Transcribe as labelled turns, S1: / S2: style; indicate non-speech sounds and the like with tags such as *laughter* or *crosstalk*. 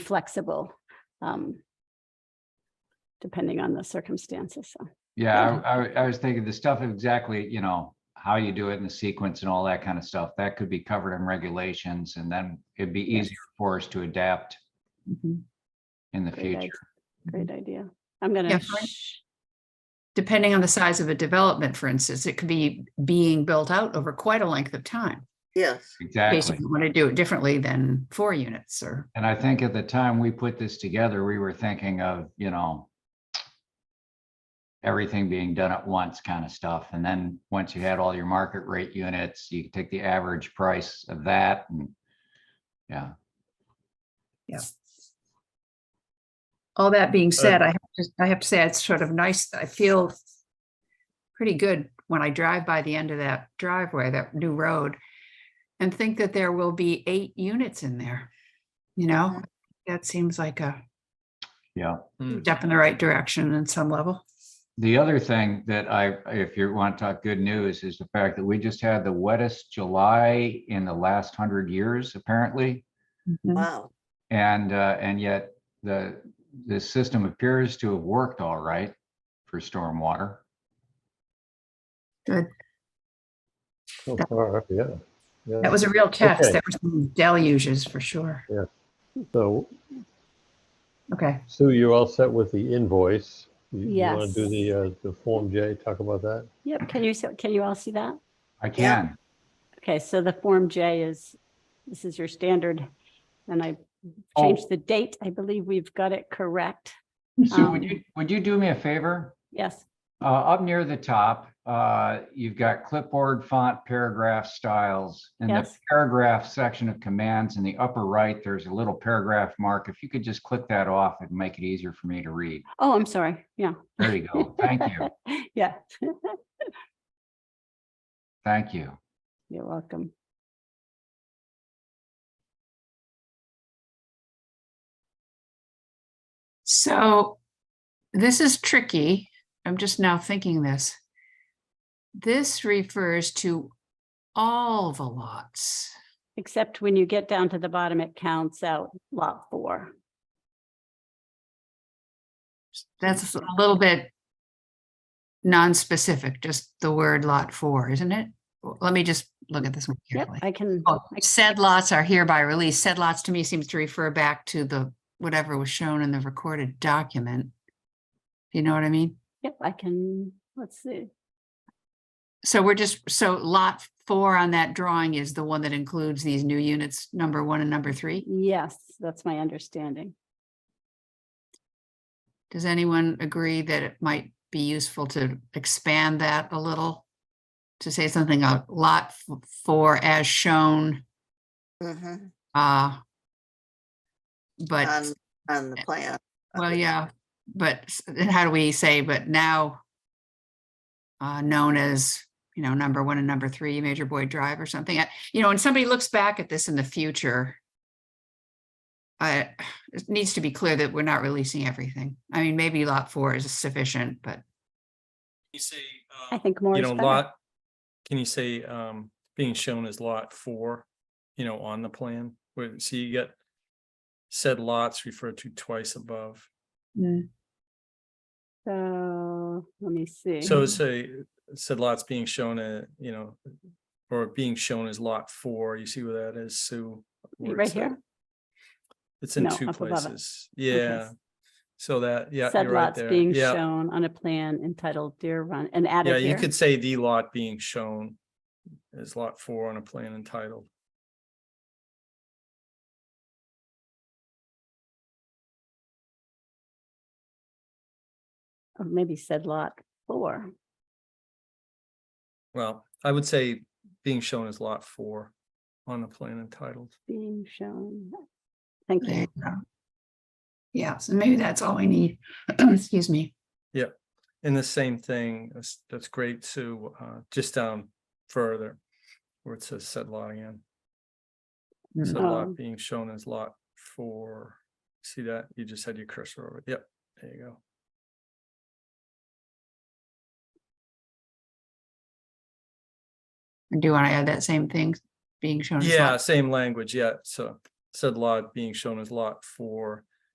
S1: flexible. um, Depending on the circumstances, so.
S2: Yeah, I, I, I was thinking the stuff of exactly, you know, how you do it in the sequence and all that kind of stuff, that could be covered in regulations and then it'd be
S1: Yes.
S2: easier for us to adapt
S3: Mhm.
S2: in the
S1: Great idea.
S2: future.
S1: Great idea. I'm gonna,
S3: Yeah,
S1: sh-
S3: fine. Depending on the size of a development, for instance, it could be being built out over quite a length of time.
S4: Yes,
S2: Exactly.
S3: Basically, want to do it differently than four units or,
S2: And I think at the time we put this together, we were thinking of, you know, everything being done at once kind of stuff. And then once you had all your market rate units, you could take the average price of that and yeah.
S3: all that being said, I have to, I have to say, it's sort of nice. I feel pretty good when I drive by the end of that driveway, that new road, and think that there will be eight units in there. You know, that seems like a
S2: Yeah.
S5: Mm.
S3: step in the right direction in some level.
S2: The other thing that I, if you want to talk good news, is the fact that we just had the wettest July in the last hundred years, apparently.
S3: Mhm.
S4: wow.
S2: And, uh, and yet the, the system appears to have worked all right for stormwater.
S6: So
S3: That-
S6: Oh, far, yeah. yeah.
S3: That was a real test.
S6: Okay.
S3: There were some deluges for sure.
S6: So
S3: Okay.
S6: Sue, you're all set with the invoice. You- You want
S1: Yes.
S6: to do the, uh, the Form J, talk about that?
S1: yep, can you, so- can you all see that?
S2: I can.
S1: Okay, so the Form J is, this is your standard. And I
S2: Oh.
S1: changed the date. I believe we've got it correct.
S2: Sue, would
S1: Um,
S2: you, would you do me a favor?
S1: Yes,
S2: Uh, up near the top, uh, you've got clipboard font, paragraph styles. In the
S1: Yes.
S2: paragraph section of commands in the upper right, there's a little paragraph mark. If you could just click that off, it'd make it easier for me to read.
S1: oh, I'm sorry, yeah.
S2: There you go. Oh, Thank you.
S1: *laughs* Yeah,
S2: Thank you.
S1: you're welcome.
S3: So this is tricky. I'm just now thinking this. This refers to all the lots.
S1: Except when you get down to the bottom, it counts out lot four.
S3: That's a little bit non-specific, just the word lot four, isn't it? Well, Let me just look at this one
S1: Yep,
S3: carefully.
S1: I can,
S3: Oh, Said lots are hereby released. Said lots to me seems to refer back to the, whatever was shown in the recorded document. You know what I mean?
S1: yep, I can, let's see.
S3: So we're just, so lot four on that drawing is the one that includes these new units, number one and number three?
S1: Yes, that's my understanding.
S3: Does anyone agree that it might be useful to expand that a little? To say something a lot f- four as shown,
S4: Mhm.
S3: uh. But,
S4: On, on the plan.
S3: well, yeah, but s- then how do we say, but now? Uh, known as, you know, number one and number three, Major Boyd Drive or something, I- you know, and somebody looks back at this in the future. I, it needs to be clear that we're not releasing everything. I mean, maybe lot four is sufficient, but.
S5: You say,
S1: I
S5: um,
S1: think more
S5: you
S1: is
S5: know,
S1: better.
S5: lot, can you say, um, being shown as lot four, you know, on the plan? Where, so you get said lots referred to twice above.
S1: So, let me see. *laughs*
S5: So say, said lots being shown, uh, you know, or being shown as lot four, you see where that is, Sue? where
S1: Right
S5: it's at?
S1: here?
S5: It's in
S1: No,
S5: two
S1: up above it.
S5: places, yeah. So that, yeah,
S1: Said
S5: you're right
S1: lots
S5: there,
S1: being
S5: yeah,
S1: shown on a plan entitled Deer Run and added
S5: yeah,
S1: here.
S5: you could say the lot being shown as lot four on a plan entitled.
S1: Or Oh, maybe said lot four.
S5: Well, I would say being shown as lot four on the plan entitled.
S1: being shown. Thank
S3: There
S1: you.
S3: you go. Yeah, so maybe that's all we need. *clears throat* Excuse me.
S5: And the same thing, that's, that's great, Sue, uh, just down further where it says said lot again. Said
S1: Oh.
S5: lot being shown as lot four. See that? You just had your cursor over. it. Yep, there you go.
S3: Do you want to add that same thing being shown? as
S5: Yeah,
S3: lots?
S5: same language, yeah, so said lot being shown as lot four